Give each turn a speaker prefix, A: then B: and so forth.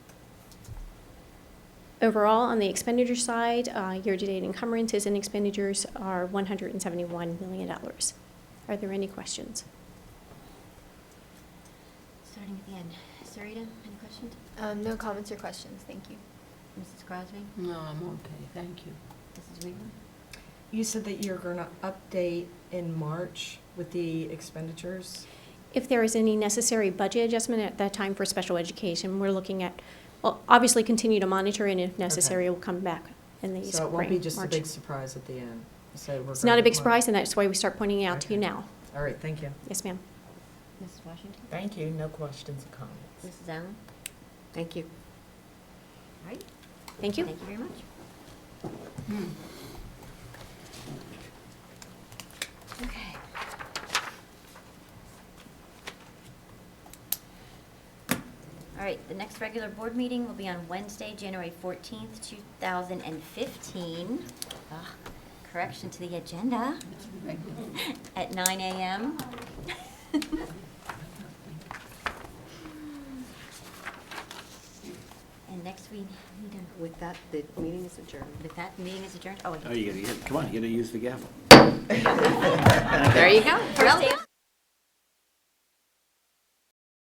A: Overall, on the expenditure side, uh, year-to-date encumbrances and expenditures are $171 million. Are there any questions?
B: Starting at the end. Sarita, any questions?
C: Um, no comments or questions, thank you.
B: Mrs. Crosby?
D: No, I'm okay, thank you.
B: Mrs. Weaver?
E: You said that you're going to update in March with the expenditures?
A: If there is any necessary budget adjustment at that time for special education, we're looking at, well, obviously continue to monitor and if necessary, we'll come back in the spring,
E: So it won't be just a
A: March.
E: big surprise at the end? So we're
A: It's
E: going
A: not a
E: to
A: big
E: March.
A: surprise and that's why we start pointing it out to you
E: Okay.
A: now.
E: All right, thank you.
A: Yes, ma'am.
B: Mrs. Washington?
D: Thank you, no questions or comments.
B: Mrs. Allen?
D: Thank you.
B: All right.
A: Thank you.
B: Thank you very much. Okay. All right, the next regular board meeting will be on Wednesday, January 14th, 2015. Ugh, Ah, Correction to the agenda at 9 a.m. And next we need a
F: With that, the meeting is adjourned.
B: With that, meeting is adjourned. Oh, I
G: Oh, you gotta, come on, you gotta use the gavel.
B: There you go. Well done.